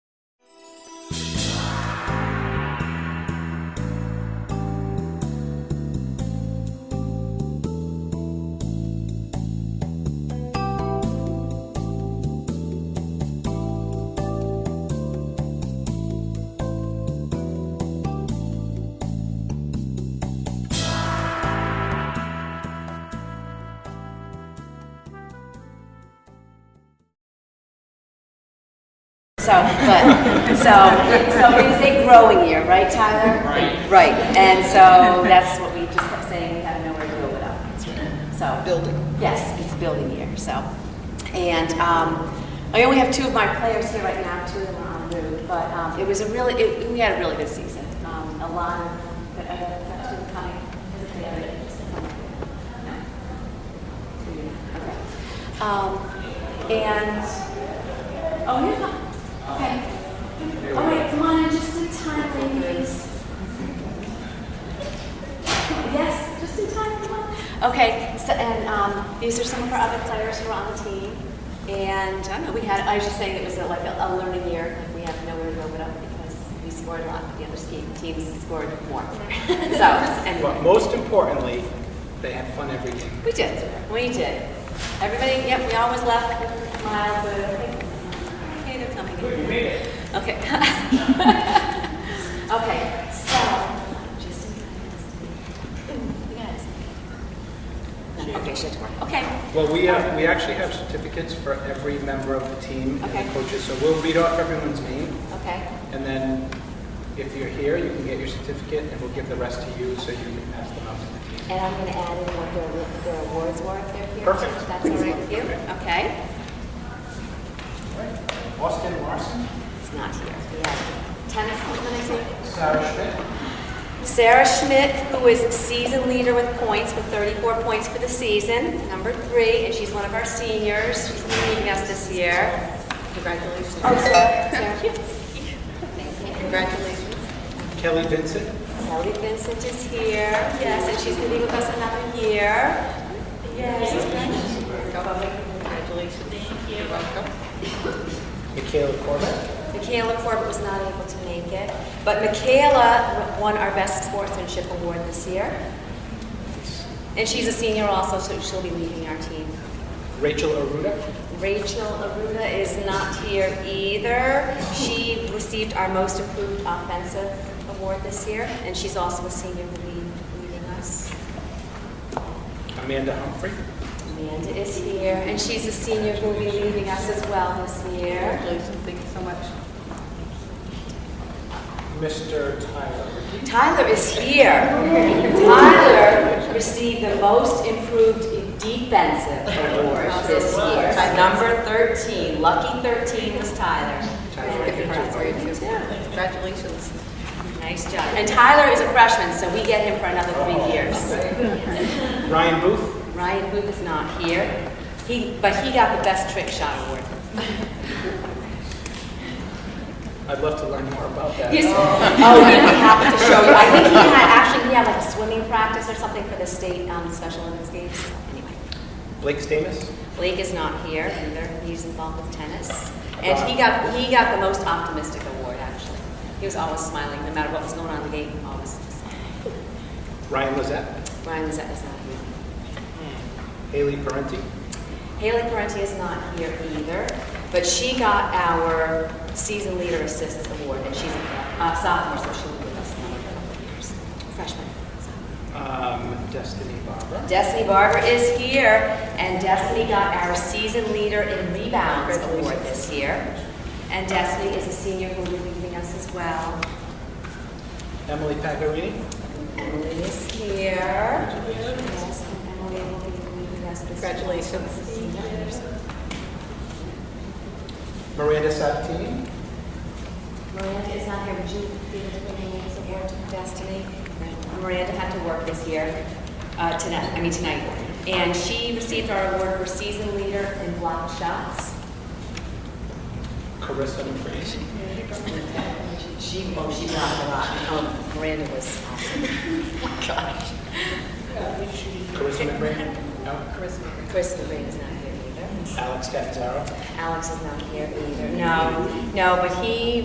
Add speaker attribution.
Speaker 1: So, but, so, so it was a growing year, right, Tyler? Right. Right, and so that's what we just kept saying, we have nowhere to go without. it. So. Building. Yes, it's a building year, so. And um, I only have two of my players here right now, two of them are on route, but um, it was a really, it- we had a really good season. Um, A lot of, but I don't know, that's who coming, is it the other? No. Okay. Um, And Oh, you're fine. Okay. All right, come on in just in time, ladies. Yes, just in time, come on. Okay, so, and um, these are some of our other players who are on the team. And I don't know, we had, I was just saying it was a- like a a learning year. Like, We have nowhere to go but up because we scored a lot, but the other ski teams scored more. So,
Speaker 2: But
Speaker 1: anyway.
Speaker 2: most importantly, they had fun every game.
Speaker 1: We did. We did. Everybody, yep, we always left with a smile, but hey, they're coming in. Okay. Okay, so, just in case. You guys. Okay, she had to work. Okay.
Speaker 2: Well, we have, we actually have certificates for every member of the team and
Speaker 1: Okay.
Speaker 2: the coaches, so we'll read off everyone's name,
Speaker 1: Okay.
Speaker 2: and then if you're here, you can get your certificate, and we'll give the rest to you, so you can pass them out to the team.
Speaker 1: And I'm going to add in what their, their awards were if they're here.
Speaker 2: Perfect.
Speaker 1: If That's all right with you? Okay.
Speaker 2: Austin Larson,
Speaker 1: It's not here. We have tennis, what did I say?
Speaker 2: Sarah Schmidt,
Speaker 1: Sarah Schmidt, who is season leader with points, with 34 points for the season, number three, and she's one of our seniors. She's leading us this year.
Speaker 3: Congratulations.
Speaker 1: Oh, Sarah, Sarah, yes.
Speaker 3: Congratulations.
Speaker 2: Kelly Vincent,
Speaker 1: Kelly Vincent is here, yes, and she's going to be with us another year. Yes.
Speaker 3: Congratulations. Thank you. You're welcome.
Speaker 2: Michaela Corbett,
Speaker 1: Michaela Corbett was not able to make it, but Michaela won our Best Sportsmanship Award this year. And she's a senior also, so she'll be leading our team.
Speaker 2: Rachel Aruda,
Speaker 1: Rachel Aruda is not here either. She received our Most Improved Offensive Award this year, and she's also a senior who will be leading us.
Speaker 2: Amanda Humphrey,
Speaker 1: Amanda is here, and she's a senior who will be leading us as well this year.
Speaker 3: Congratulations. Thank you so much.
Speaker 2: Mr. Tyler,
Speaker 1: Tyler is here. Tyler received the Most Improved Defensive Award this year.
Speaker 3: At number 13, lucky 13 was Tyler.
Speaker 2: Tyler,
Speaker 3: Give her a praise, too. Congratulations.
Speaker 1: Nice job. And Tyler is a freshman, so we get him for another three years.
Speaker 2: Ryan Booth,
Speaker 1: Ryan Booth is not here. He, but he got the best trick shot award.
Speaker 2: I'd love to learn more about that.
Speaker 1: Yes. Oh, he'd be happy to show you. I think he had, actually, he had like a swimming practice or something for the state um, Special Olympics Games. Anyway,
Speaker 2: Blake Stamus,
Speaker 1: Blake is not here either. He's involved with tennis. And he got, he got the most optimistic award, actually. He was always smiling, no matter what was going on in the game, always smiling.
Speaker 2: Ryan Lozette,
Speaker 1: Ryan Lizette is not here.
Speaker 2: Haley Parenti,
Speaker 1: Haley Parenti is not here either, but she got our Season Leader Assistance Award, and she's a sophomore, so she'll be with us in another couple of years. Freshman. so.
Speaker 2: um, Destiny Barber,
Speaker 1: Destiny Barber is here, and Destiny got our Season Leader in Rebounds Award this year. And Destiny is a senior who will be leaving us as well.
Speaker 2: Emily Pagarini,
Speaker 1: Emily is here. Yes, and Emily will be leaving us this year.
Speaker 3: Congratulations.
Speaker 2: Miranda Sabatini,
Speaker 1: Miranda is not here, would you be able to put her name as a ward to Destiny? Miranda had to work this year, uh, tonight, I mean tonight. And she received our award for season leader in block shots.
Speaker 2: Carissa McCreasy,
Speaker 1: She, oh, she blocked a lot. Um, Miranda was awesome. Gosh.
Speaker 2: Carissa McRae? No.
Speaker 1: Chris Miranda's not here either.
Speaker 2: Alex Catanzaro?
Speaker 1: Alex is not here either. No, no, but he